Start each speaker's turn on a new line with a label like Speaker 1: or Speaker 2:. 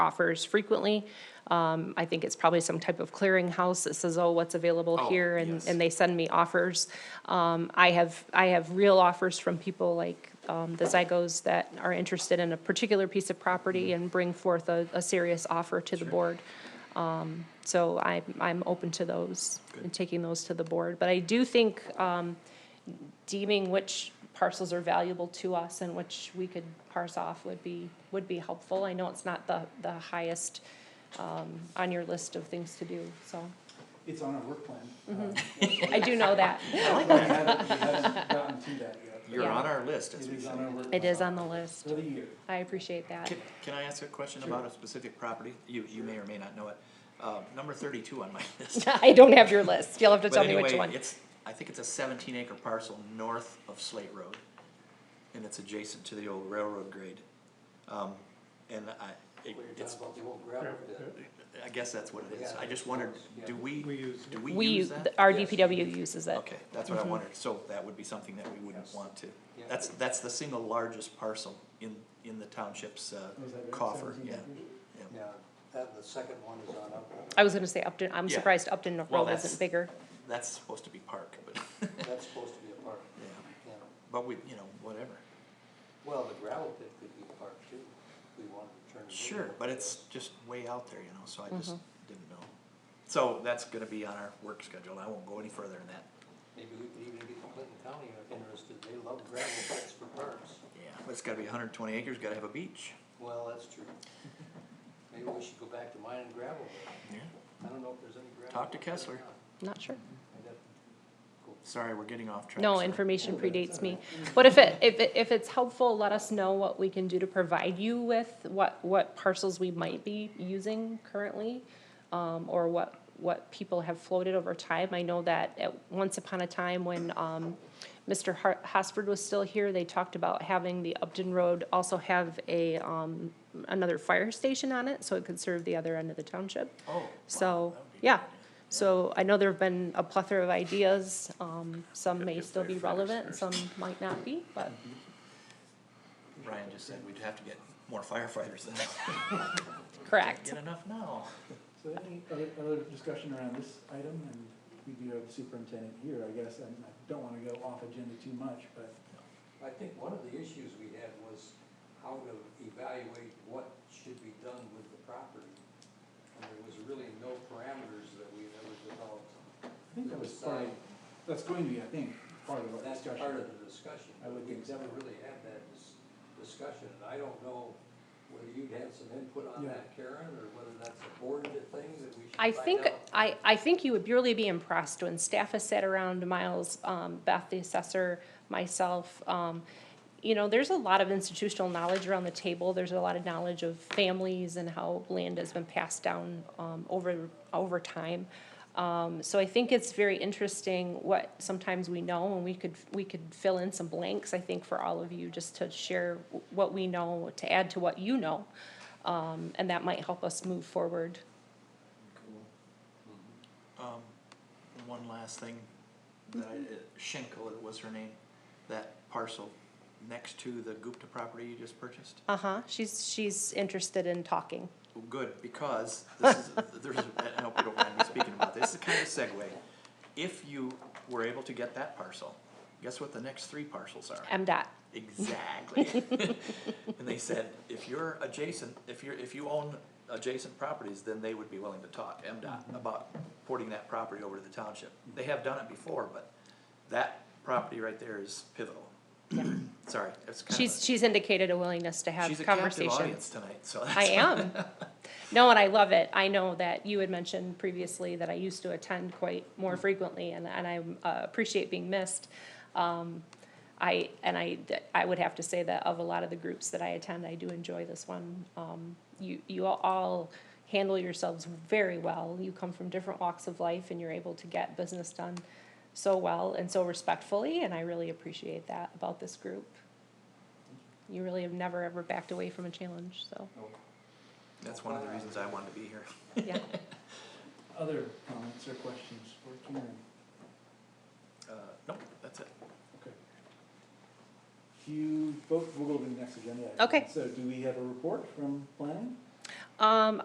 Speaker 1: offers frequently. Um, I think it's probably some type of clearinghouse that says, oh, what's available
Speaker 2: Oh,
Speaker 1: here? And,
Speaker 2: yes.
Speaker 1: and they send me offers. Um, I have, I have real offers from people like, um, the Zygos that are interested in a particular piece of property
Speaker 2: Mm-hmm.
Speaker 1: and bring forth a, a serious offer to the board. Um, so I'm, I'm open to those and taking those to the board. But I do think, um, deeming which parcels are valuable to us and which we could parse off would be, would be helpful. I know it's not the, the highest um, on your list of things to do, so
Speaker 3: It's on our work plan.
Speaker 1: Mm-hmm. I do know that.
Speaker 3: Uh, We haven't we haven't gotten to that yet.
Speaker 2: You're
Speaker 1: Yeah.
Speaker 2: on our list, as
Speaker 3: It
Speaker 2: we
Speaker 3: is
Speaker 2: say.
Speaker 3: on our work.
Speaker 1: It is
Speaker 3: plan
Speaker 1: on the list.
Speaker 3: For the year.
Speaker 1: I appreciate that.
Speaker 2: Can, can I ask a question about a specific property? You, you may or may not know it. Uh, number thirty-two on my list.
Speaker 1: I don't have your list. You'll have to
Speaker 2: But
Speaker 1: tell me which
Speaker 2: anyway,
Speaker 1: one.
Speaker 2: It's, I think it's a seventeen acre parcel north of Slate Road. And it's adjacent to the old railroad grade. Um, and I, it- it's, I guess that's what it is. I just wondered, do we, do we
Speaker 1: We,
Speaker 2: use that?
Speaker 1: our DPW uses it.
Speaker 2: Okay, that's
Speaker 1: Mm-hmm.
Speaker 2: what I wondered. So that would be something that we wouldn't want to.
Speaker 4: Yeah.
Speaker 2: That's, that's the single largest parcel in, in the township's, uh,
Speaker 3: Is that right?
Speaker 2: coffer,
Speaker 3: 17
Speaker 2: yeah.
Speaker 3: acres?
Speaker 2: yeah.
Speaker 4: Yeah, that, the second one is on up,
Speaker 1: I was gonna say Upton, I'm
Speaker 2: Yeah.
Speaker 1: surprised Upton
Speaker 2: Well,
Speaker 1: Road
Speaker 2: that's-
Speaker 1: isn't bigger.
Speaker 2: That's supposed to be park, but,
Speaker 4: that's supposed to be a park,
Speaker 2: yeah,
Speaker 4: yeah.
Speaker 2: but we, you know, whatever.
Speaker 4: Well, the gravel pit could be a park too, if we wanted to turn it. into
Speaker 2: Sure,
Speaker 4: a
Speaker 2: but
Speaker 4: park.
Speaker 2: it's just way out there, you know, so I just
Speaker 1: Mm-hmm.
Speaker 2: didn't know. So that's gonna be on our work schedule, I won't go any further than that.
Speaker 4: Maybe we could even get Clinton County interested, they love gravel pits for parks,
Speaker 2: Yeah. But it's gotta be hundred and twenty acres, gotta have a beach.
Speaker 4: well, that's true. Maybe we should go back to mining gravel, but
Speaker 2: Yeah.
Speaker 4: I don't know if there's any gravel.
Speaker 2: Talk to
Speaker 4: out there or
Speaker 2: Kessler.
Speaker 4: not.
Speaker 1: Not sure.
Speaker 4: I'd have to go
Speaker 2: Sorry, we're getting off track.
Speaker 1: No,
Speaker 2: sorry.
Speaker 1: information predates me. But if it, if it, if it's helpful, let us know what we can do to provide you with, what, what parcels we might be using currently, um, or what, what people have floated over time. I know that at, once upon a time when, um, Mr. Har- Hosford was still here, they talked about having the Upton Road also have a, um, another fire station on it, so it could serve the other end of the township.
Speaker 2: Oh, wow,
Speaker 1: So,
Speaker 2: that would be a
Speaker 1: yeah,
Speaker 2: good idea.
Speaker 1: so I know there've been a plethora of ideas, um, some
Speaker 2: Gotta
Speaker 1: may
Speaker 2: get
Speaker 1: still be
Speaker 2: firefighters
Speaker 1: relevant, and
Speaker 2: first.
Speaker 1: some might not be, but
Speaker 2: Ryan just said we'd have to get more firefighters than
Speaker 1: correct.
Speaker 2: Get enough now.
Speaker 3: So any other, other discussion around this item, and we do have the superintendent here, I guess, and I don't wanna go off agenda too much, but
Speaker 4: I think one of the issues we had was how to evaluate what should be done with the property. And there was really no parameters that we had ever developed.
Speaker 3: I think that was part of, that's going to be, I think, part of our
Speaker 4: That's
Speaker 3: discussion.
Speaker 4: part of the discussion.
Speaker 3: I would think
Speaker 4: We've
Speaker 3: so.
Speaker 4: never really had that dis- discussion, and I don't know whether you'd had some input on
Speaker 3: Yeah.
Speaker 4: that, Karen, or whether that's a board thing that we should
Speaker 1: I
Speaker 4: find out.
Speaker 1: think, I, I think you would really be impressed when staff has sat around, Miles, um, Beth, the assessor, myself, um, you know, there's a lot of institutional knowledge around the table, there's a lot of knowledge of families and how land has been passed down, um, over, over time. Um, so I think it's very interesting what sometimes we know, and we could, we could fill in some blanks, I think, for all of you, just to share what we know, to add to what you know. Um, and that might help us move forward.
Speaker 4: Mm-hmm.
Speaker 2: Um, and one last thing, that I, uh, Schenkel it was her name, that parcel next to the Gupta property you just purchased?
Speaker 1: Uh-huh, she's, she's interested in talking.
Speaker 2: Well, Good, because this is, there's, I hope you don't mind me speaking about this, it's kind of a segue. If you were able to get that parcel, guess what the next three parcels are?
Speaker 1: MDOT,
Speaker 2: Exactly. And they said, if you're adjacent, if you're, if you own adjacent properties, then they would be willing to talk,
Speaker 1: Mm-hmm.
Speaker 2: MDOT, about porting that property over to the township. They have done it before, but that property right there is pivotal.
Speaker 1: yeah.
Speaker 2: Sorry, it's kind of.
Speaker 1: She's, she's indicated a willingness to have
Speaker 2: She's a captive
Speaker 1: conversations.
Speaker 2: audience tonight, so.
Speaker 1: I am. No, and I love it. I know that you had mentioned previously that I used to attend quite more frequently, and, and I uh, appreciate being missed. Um, I, and I, I would have to say that of a lot of the groups that I attend, I do enjoy this one. Um, you, you all handle yourselves very well. You come from different walks of life, and you're able to get business done so well and so respectfully, and I really appreciate that about this group. You really have never, ever backed away from a challenge, so,
Speaker 2: That's one of the reasons I wanted to be here.
Speaker 1: yeah.
Speaker 3: Other comments or questions for Karen?
Speaker 2: Uh, nope, that's it.
Speaker 3: Okay. Do you, vote? we'll go to the next agenda. item.
Speaker 1: Okay.
Speaker 3: So do we have a report from planning?
Speaker 1: Um,